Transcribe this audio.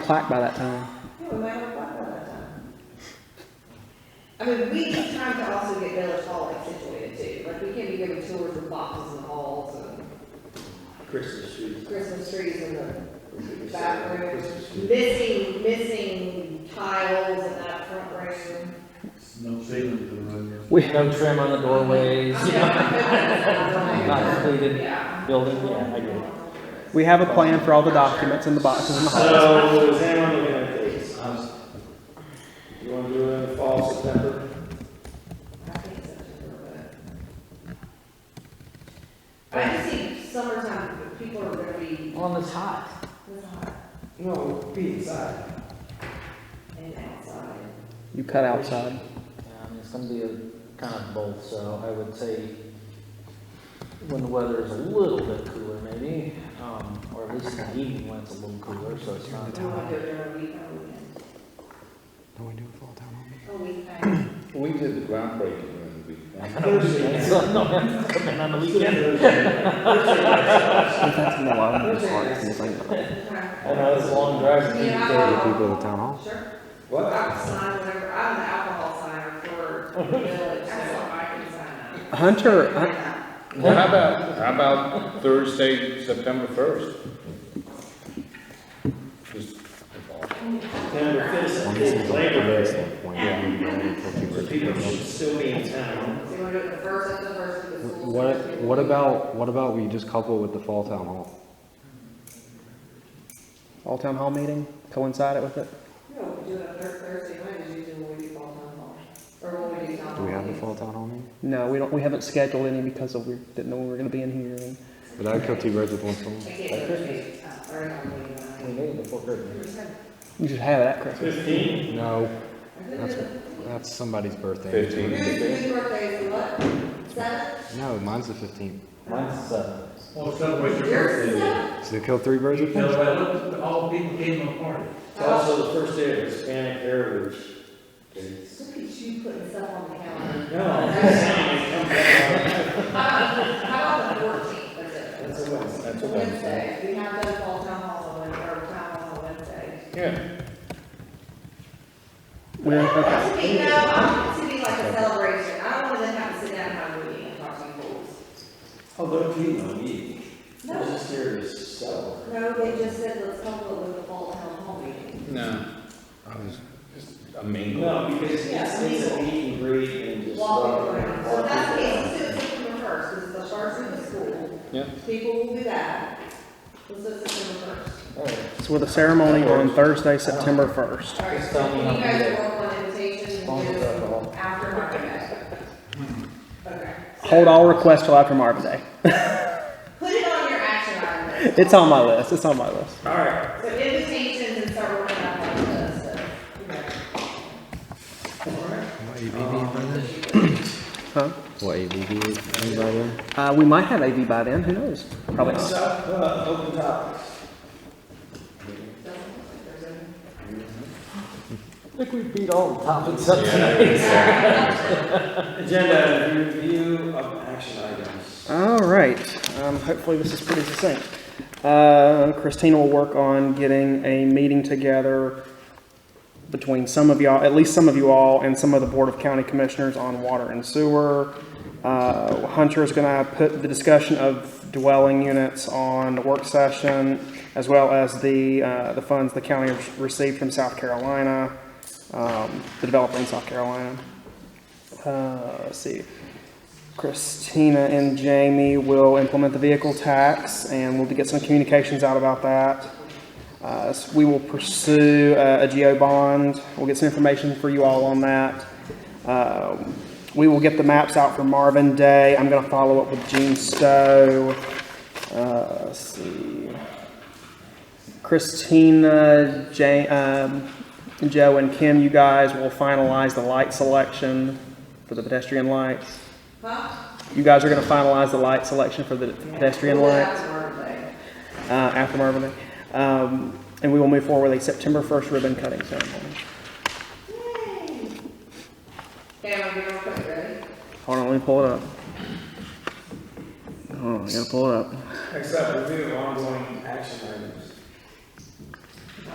plaque by that time. Yeah, we might have bought one that time. I mean, we are trying to also get Village Hall like situated too, like we can't be giving tours of boxes and halls and Christmas tree. Christmas trees and the Christmas back tree, room. Christmas tree. Missing, missing tiles in that front room. No ceiling to the room. We no trim on the doorways, not Yeah. completed Yeah. building, yeah, I agree. We have a plan for all the documents and the boxes in the hall. So, is anyone looking at dates? I was- You wanna do it in the fall, September? I think it's September, but- I just think summertime, people are gonna be, On the top. it's hot No, be inside. and outside. You cut outside. Um, it's gonna be a kind of both, so I would say when the weather is a little bit cooler maybe, um, or at least in the evening when it's a little cooler, so it's not. We wanna do it during a week, not a weekend. Don't we do a fall town hall? A weekend. We did the groundbreaking during the weekend. Thursday. So, no, I have to come in on the weekend. That's in the law. It's hard to Okay. I know, it's a long drive. Yeah. town hall. Sure. What? I'll sign whatever, I'm an alcohol signer for the village, so I can sign up. Hunter, Hun- Well, how about, how about Thursday, September first? Just September fifth, it's Labor Day. So people should still be in town. So you wanna do it the first, that's the first of the school. What, what about, what about we just couple with the fall town hall? all town hall meeting, coincide it with it? No, we do it on Thur- Thursday night, is usually when we do fall town hall, or when we do town hall. Do we have the meetings. fall town hall meeting? No, we don't, we haven't scheduled any because of, we didn't know we were gonna be in here. and- But I would kill two birds with one stone. I can't do it, uh, or on We the made it before Christmas. weekend. You should have it at Christmas. Fifteen? No, Who's, that's, that's somebody's birthday. fifteen. whose birthday is what, seven? No, mine's the fifteenth. Mine's seven. Well, celebrate your Yours birthday. is seven? So kill three birds with one stone? Celebrate, all people came to a party. It's also the first day of Hispanic Heritage. Day. Look at you putting stuff on the calendar. No, I'm just saying, it comes out. Uh, How about the fourteenth, is it? That's a Wednesday. That's a Wednesday. Wednesday, we have those fall town hall on, Wed- or town hall on Wednesday. Yeah, We're, okay. To me, no, I want it to be like a celebration, I don't want to then have to sit down and have a meeting and talk to you fools. Although, Oh, you know, me, I was No, just here to celebrate. no, they just said, let's couple it with the fall town hall meeting. no, I was just a mingle. No, because it's, it's a meet and greet and just. Walking walk around, around. so that's the, let's do it September first, this is the first of the school. Yeah. People will be back, let's do it September first. so with a ceremony on Thursday, September first. All right, Just so tell me you how to guys do it. work on invitations Phone and is up, do after Marvin Day. Okay. so Hold all requests till after Marvin Day. Put it on your action item. list. It's on my list, it's on my list. All right, So invitations and start working on like this, so, you know. What ABV by then? Huh? What ABV is by then? Uh, we might have AV by then, who knows? Probably next not. up, uh, open topics. I think we beat all the topics up Yeah, tonight. Agenda item, review of action items. All right, um, hopefully this is pretty succinct. Uh, Christina will work on getting a meeting together between some of y'all, at least some of you all, and some of the Board of County Commissioners on water and sewer. Uh, Hunter's gonna put the discussion of dwelling units on the work session, as well as the, uh, the funds the county has received from South Carolina, um, the developer in South Carolina. Uh, let's see. Christina and Jamie will implement the vehicle tax, and we'll get some communications out about that. Uh, s- we will pursue uh, a geo bond. We'll get some information for you all on that. Um, we will get the maps out for Marvin Day. I'm going to follow up with Gene Stowe. Uh, let's see. Christina, Jay, um, Joe, and Kim, you guys will finalize the light selection for the pedestrian lights. Huh? You guys are gonna finalize the light selection for the pedestrian lights, uh, after Marvin Day. Um, and we will move forward with a September first ribbon cutting ceremony. Okay, I'm gonna put it ready. Hold on, let me pull it up. Hold on, I gotta pull it up. Next up, review of ongoing action items.